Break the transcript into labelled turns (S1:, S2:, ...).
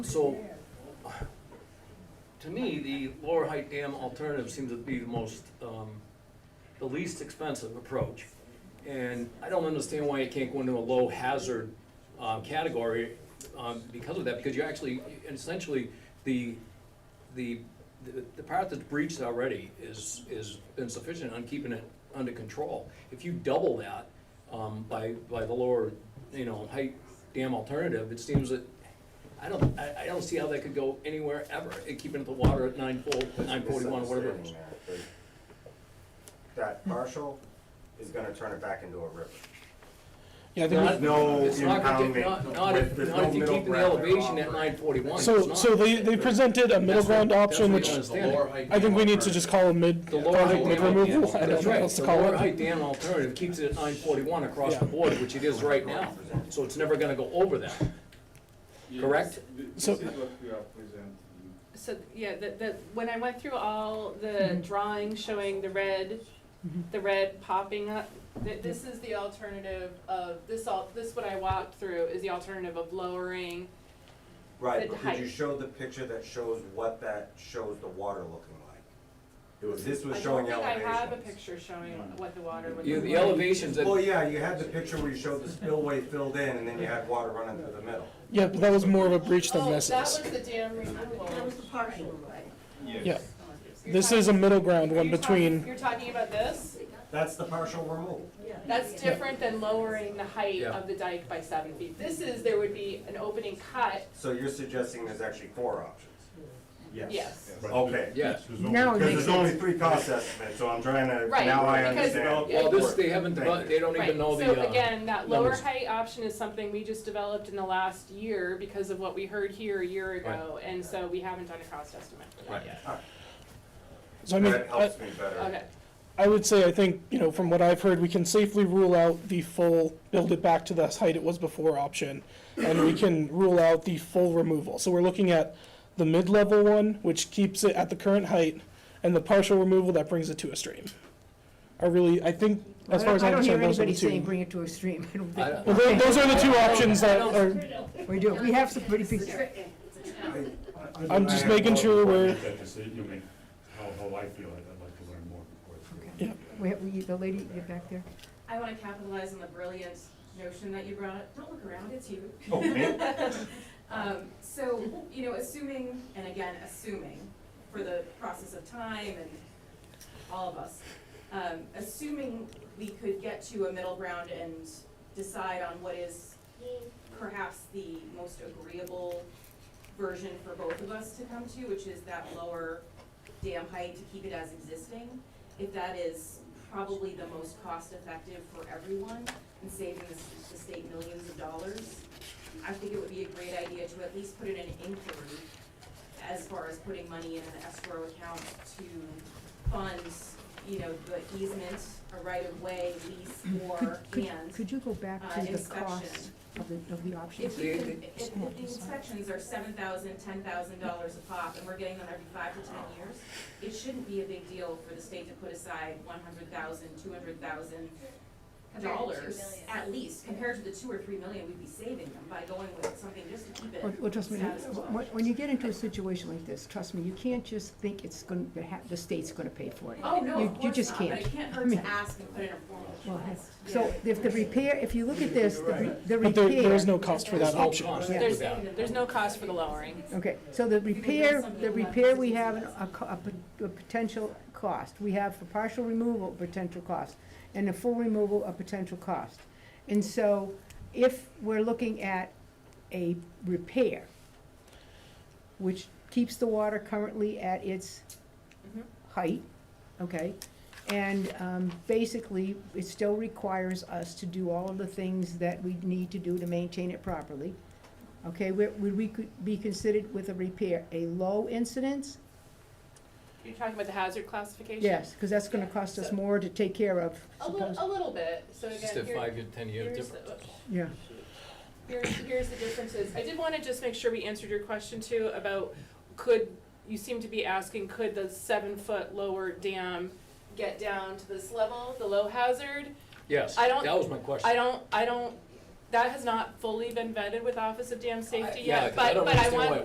S1: So, to me, the Lower Height Dam alternative seems to be the most, um, the least expensive approach. And I don't understand why it can't go into a low hazard, um, category, um, because of that, because you actually, essentially, the, the, the- the part that's breached already is, is insufficient on keeping it under control. If you double that, um, by, by the lower, you know, height dam alternative, it seems that I don't, I, I don't see how that could go anywhere ever, eh, keeping the water at nine four, nine forty-one, whatever it was.
S2: Misunderstanding there, but That partial is gonna turn it back into a river.
S3: Yeah, I
S1: Not-
S3: think,
S2: no
S1: it's not gonna get-
S2: impoundment
S1: Not, not if,
S2: with- there's
S1: not if
S2: no
S1: you're
S2: middle
S1: keeping the
S2: ground at
S1: elevation
S2: all.
S1: at nine forty-one,
S3: we-
S1: it's
S3: so,
S1: not.
S3: so they, they presented a middle
S1: That's what-
S3: ground option,
S1: that's
S3: which
S1: what
S4: The lower height
S3: I think we need to
S4: dam
S3: just call a mid,
S1: The lower height
S3: project mid
S1: dam
S3: removal,
S1: alternative.
S3: I don't
S1: That's
S3: know what
S1: right.
S3: else to
S1: The
S3: call
S1: lower
S3: it.
S1: height dam alternative keeps it at nine forty-one across the
S3: Yeah.
S1: board, which it is right now, so it's never gonna go over that.
S5: Yes,
S1: Correct?
S5: th- This
S3: So-
S5: is what we are presenting.
S6: So, yeah, the, the, when I went through all the
S3: Mm-hmm.
S6: drawings showing the red, the red popping up, th- this is the alternative of, this all, this what I walked through is the alternative of lowering.
S2: Right,
S6: The
S2: but could you
S6: height.
S2: show the picture that shows what that shows the water looking like? It was, this was
S6: I
S2: showing
S6: don't
S2: elevations.
S6: think I have a picture showing
S3: Mm-hmm.
S6: what the water would
S1: You,
S6: look
S1: the
S6: like.
S1: elevations at,
S2: Well, yeah, you had the picture where you showed the spillway filled in and then you had water running through the middle.
S3: Yeah, but that was more of a breach than
S6: Oh, that was
S3: necessary.
S6: the dam removal.
S7: That was the partial, right?
S5: Yes.
S3: Yeah,
S6: You're
S3: this
S6: talking-
S3: is a middle ground one
S6: you're talking-
S3: between,
S6: You're talking about this?
S2: That's the partial removal.
S6: That's different than lowering the height
S1: Yeah.
S6: of the dike by seven feet. This is, there would be an opening cut,
S2: So you're suggesting there's actually four options?
S6: yes.
S2: Okay.
S1: yeah,
S7: Now it
S2: Because
S7: makes
S2: there's only three cost estimates, so I'm trying to,
S6: Right,
S2: now I
S6: because-
S2: understand.
S6: yeah.
S1: well, this, they haven't, devo- they don't
S6: Right,
S1: even know
S6: so
S1: the, uh,
S6: again, that lower
S1: numbers.
S6: height option is something we just developed in the last year because of what we heard here a year ago, and so we haven't done a cost estimate for that yet.
S3: so I mean,
S2: That
S3: I,
S2: helps me better.
S6: Okay,
S3: I would say, I think, you know, from what I've heard, we can safely rule out the full build it back to the height it was before option. And we can rule out the full removal. So we're looking at the mid-level one, which keeps it at the current height, and the partial removal that brings it to a stream. I really, I think, as far as I'm concerned, those are the
S7: I don't hear anybody saying
S3: two.
S7: bring it to extreme, I don't
S1: I don't-
S3: Well,
S7: think,
S3: tho- those are the two options that
S1: I don't-
S3: are,
S7: we do, we have some pretty big.
S3: I'm just making sure we're-
S8: That decision, I mean, how, how I feel, I'd I'd like to learn more before. it's-
S3: Yeah.
S7: We have, we, the lady, you're back there,
S6: I wanna capitalize on the brilliant notion that you brought, don't look around, it's you.
S2: Oh, man.
S6: Um, so, you know, assuming, and again, assuming, for the process of time and all of us, um, assuming we could get to a middle ground and decide on what is perhaps the most agreeable version for both of us to come to, which is that lower dam height to keep it as existing, if that is probably the most cost-effective for everyone and saving the, the state millions of dollars, I think it would be a great idea to at least put in an inquiry as far as putting money in an escrow account to fund, you know, the easement, a right-of-way lease or
S7: could,
S6: and,
S7: could you go back
S6: uh,
S7: to the
S6: inspection.
S7: cost of the, of the
S6: If
S7: options?
S6: we
S1: They-
S6: could, if, if the inspections are seven thousand, ten thousand dollars a pop, and we're getting them every five to ten years, it shouldn't be a big deal for the state to put aside one hundred thousand, two hundred thousand
S9: Compared to two
S6: dollars,
S9: million.
S6: at least, compared to the two or three million we'd be saving them by going with something just to keep it
S7: Well, well, trust me,
S6: status quo.
S7: when, when you get into a situation like this, trust me, you can't just think it's gonna, the ha- the state's gonna pay for it.
S6: Oh, no,
S7: You-
S6: of
S7: you
S6: course
S7: just
S6: not, but
S7: can't.
S6: it can't
S7: I
S6: hurt
S7: mean-
S6: to ask and put in a formal
S7: Well,
S6: request.
S7: So if the repair, if you look at this, the re- the
S3: but there, there is
S7: repair,
S3: no cost for that
S1: there's no
S3: option.
S1: cost
S7: Yeah.
S1: to that.
S6: there's no cost for the lowering.
S7: okay, so the repair, the repair, we have an- a, co- a pot- a potential cost. We have for partial removal, potential cost, and a full removal, a potential cost. And so if we're looking at a repair, which keeps the water currently at its
S6: Mhm.
S7: height, okay? And um, basically, it still requires us to do all of the things that we need to do to maintain it properly. Okay, would would we could be considered with a repair, a low incidence?
S6: You're talking about the hazard classification?
S7: Yes, because that's gonna cost us more to take care of,
S6: A little,
S7: suppose.
S6: a little bit, so
S1: It's just a
S6: again, here,
S1: five-year, ten-year
S6: here's the,
S1: difference.
S7: Yeah,
S6: here's, here's the differences. I did wanna just make sure we answered your question too about could, you seem to be asking, could the seven foot lower dam get down to this level, the low hazard?
S1: Yes,
S6: I don't-
S1: that was my question.
S6: I don't, I don't, that has not fully been vetted with Office of Dam Safety
S1: yeah,
S6: yet,
S1: 'cause I
S6: but,
S1: don't
S6: but I
S1: understand
S6: want,
S1: why